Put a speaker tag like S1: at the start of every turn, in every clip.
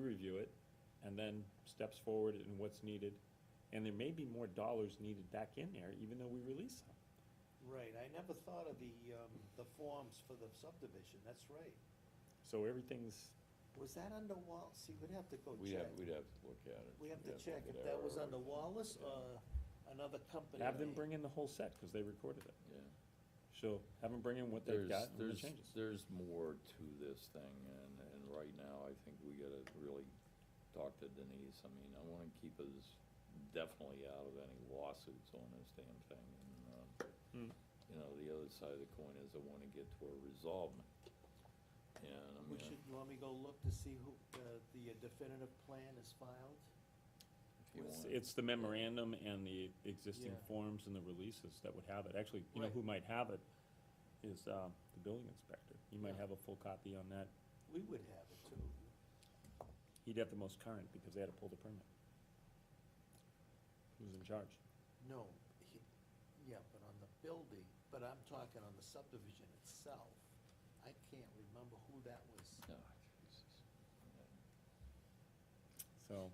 S1: review it, and then steps forward in what's needed. And there may be more dollars needed back in there, even though we release some.
S2: Right, I never thought of the, um, the forms for the subdivision, that's right.
S1: So everything's,
S2: Was that under Wall, see, we'd have to go
S3: We'd
S2: check.
S3: have, we'd have to look at it.
S2: We have to
S3: We'd
S2: check
S3: look
S2: if
S3: at
S2: that was
S3: our-
S2: under Wallace uh, or another company.
S1: have them bring in the whole set, because they recorded it.
S3: Yeah.
S1: So have them bring in what they've
S3: There's,
S1: got and the
S3: there's,
S1: changes.
S3: there's more to this thing, and, and right now, I think we gotta really talk to Denise. I mean, I wanna keep us definitely out of any lawsuits on this damn thing. And,
S1: Hmm.
S3: um, you know, the other side of the coin is I wanna get to a resolvement. And I
S2: We
S3: mean,
S2: should, you want me to go look to see who, uh, the definitive plan is filed?
S3: if you
S1: It's-
S3: want.
S1: It's the memorandum and the existing
S2: Yeah.
S1: forms and the releases that would have it. Actually, you know
S2: Right.
S1: who might have it is, um, the building inspector. He might
S2: Yeah.
S1: have a full copy on that.
S2: We would have it too.
S1: He'd have the most current, because they had to pull the permit. Who's in charge?
S2: No, he, yeah, but on the building, but I'm talking on the subdivision itself. I can't remember who that was.
S3: Oh, Jesus.
S1: So,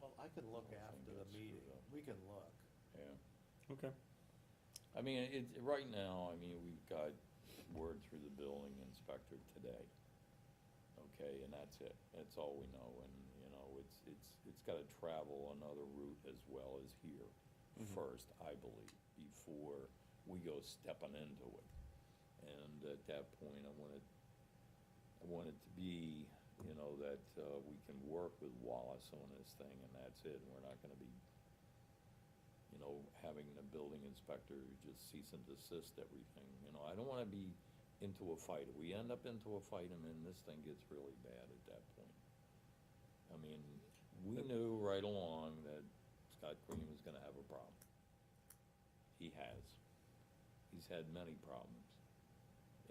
S2: Well, I can look
S3: Whole thing
S2: after the
S3: gets screwed
S2: meeting.
S3: up.
S2: We can look.
S3: Yeah.
S1: okay.
S3: I mean, it, right now, I mean, we've got word through the building inspector today. Okay, and that's it. That's all we know, and, you know, it's, it's, it's gotta travel another route as well as here first, I believe, before we go stepping into it. And at that point, I wanna I want it to be, you know, that uh, we can work with Wallace on this thing, and that's it, and we're not gonna be, you know, having the building inspector just cease and desist everything, you know, I don't wanna be into a fight. If we end up into a fight, and then this thing gets really bad at that point. I mean, we knew right along that Scott Green was gonna have a problem. He has. He's had many problems.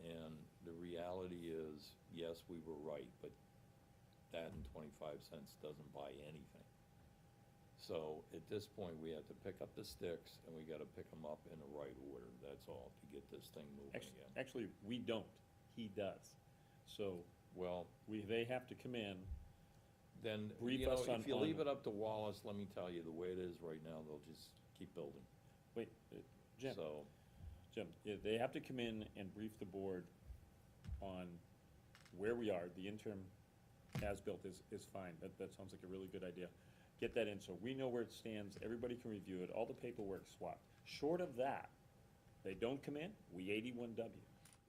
S3: And the reality is, yes, we were right, but that and twenty-five cents doesn't buy anything. So at this point, we have to pick up the sticks and we gotta pick them up in the right order, that's all, to get this thing moving
S1: Actually,
S3: again.
S1: actually, we don't, he does. So,
S3: Well,
S1: we, they have to come in,
S3: then,
S1: Brief
S3: you know,
S1: us on-
S3: if you leave
S1: on-
S3: it up to Wallace, let me tell you, the way it is right now, they'll just keep building,
S1: wait, uh, Jim,
S3: so.
S1: Jim, yeah, they have to come in and brief the board on where we are, the interim as-built is, is fine, that, that sounds like a really good idea. Get that in, so we know where it stands, everybody can review it, all the paperwork swapped. Short of that, they don't come in, we eighty-one W.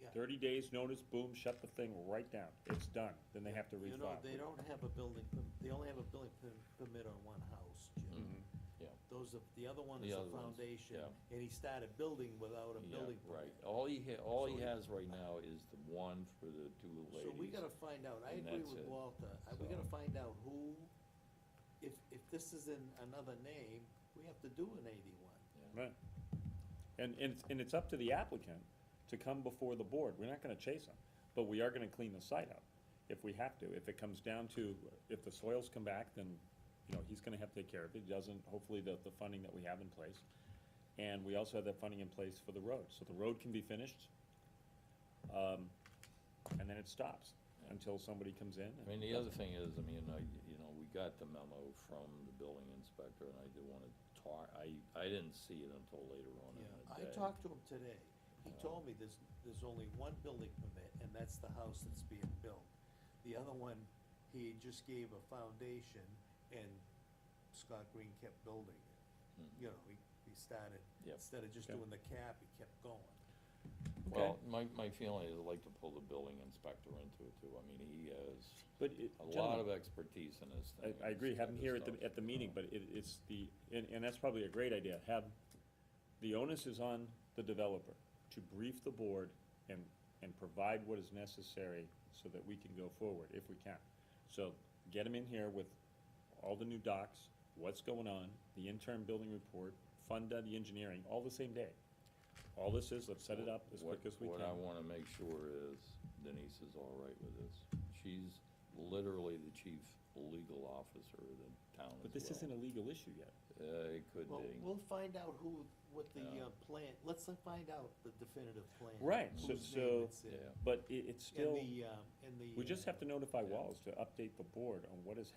S2: Yeah.
S1: Thirty days notice, boom, shut the thing right down, it's done, then they have to refile.
S2: You know, they don't have a building, per- they only have a building per- permit on one house, Jim.
S3: Mm-hmm, Yeah.
S2: Those are, the other one
S3: The
S2: is a
S3: other ones,
S2: foundation,
S3: yeah.
S2: and he started building without a
S3: Yeah,
S2: building
S3: Right,
S2: permit.
S3: all he, ha- all he
S2: So-
S3: has right now is the one for the two ladies.
S2: So we gotta find out, I
S3: And
S2: agree
S3: that's
S2: with
S3: it.
S2: Walter, I- we gotta
S3: So-
S2: find out who, if, if this is in another name, we have to do an eighty-one.
S3: Yeah.
S1: Right. And, and, it's- and it's up to the applicant to come before the board. We're not gonna chase them, but we are gonna clean the site up if we have to. If it comes down to, if the soils come back, then, you know, he's gonna have to take care of it. He Doesn't, hopefully, the, the funding that we have in place. And we also have that funding in place for the road, so the road can be finished. Um, and then it stops until somebody comes in.
S3: I mean, the other thing is, I mean, I, you know, we got the memo from the building inspector, and I did wanna talk, I, I didn't see it until later on in the
S2: I
S3: day.
S2: talked to him today, he told me there's, there's only one building permit, and that's the house that's being built. The other one, he just gave a foundation, and Scott Green kept building it. You know, he, he started,
S3: Hmm. Yep.
S2: instead of just
S1: Okay.
S2: doing the cap, he kept going.
S3: Well, my, my feeling is I'd like to pull the building inspector into it too, I mean, he has
S1: But it.
S3: a
S1: gentlemen,
S3: lot of expertise in this
S1: I,
S3: thing.
S1: I agree, have them here at the, at the meeting,
S3: but.
S1: but it, it's the, and, and that's probably a great idea, have, the onus is on the developer to brief the board and, and provide what is necessary so that we can go forward, if we can. So, get them in here with all the new docs, what's going on, the interim building report, fund uh, the engineering, all the same day. All this is, let's set it up as
S3: What-
S1: quick as we
S3: What I
S1: can.
S3: wanna make sure is Denise is all right with this. She's literally the chief legal officer of the town as well.
S1: But this isn't a legal issue yet.
S3: Uh, it could
S2: Well,
S3: be.
S2: we'll find out who, what the,
S3: Yeah.
S2: uh, plan, let's find out the definitive plan.
S1: Right, so-
S2: whose name
S1: so-
S2: it's in,
S3: Yeah.
S1: But it, it's
S2: And
S1: still,
S2: the, um, and the.
S1: we just
S2: uh,
S1: have to notify Wallace to update the board on what is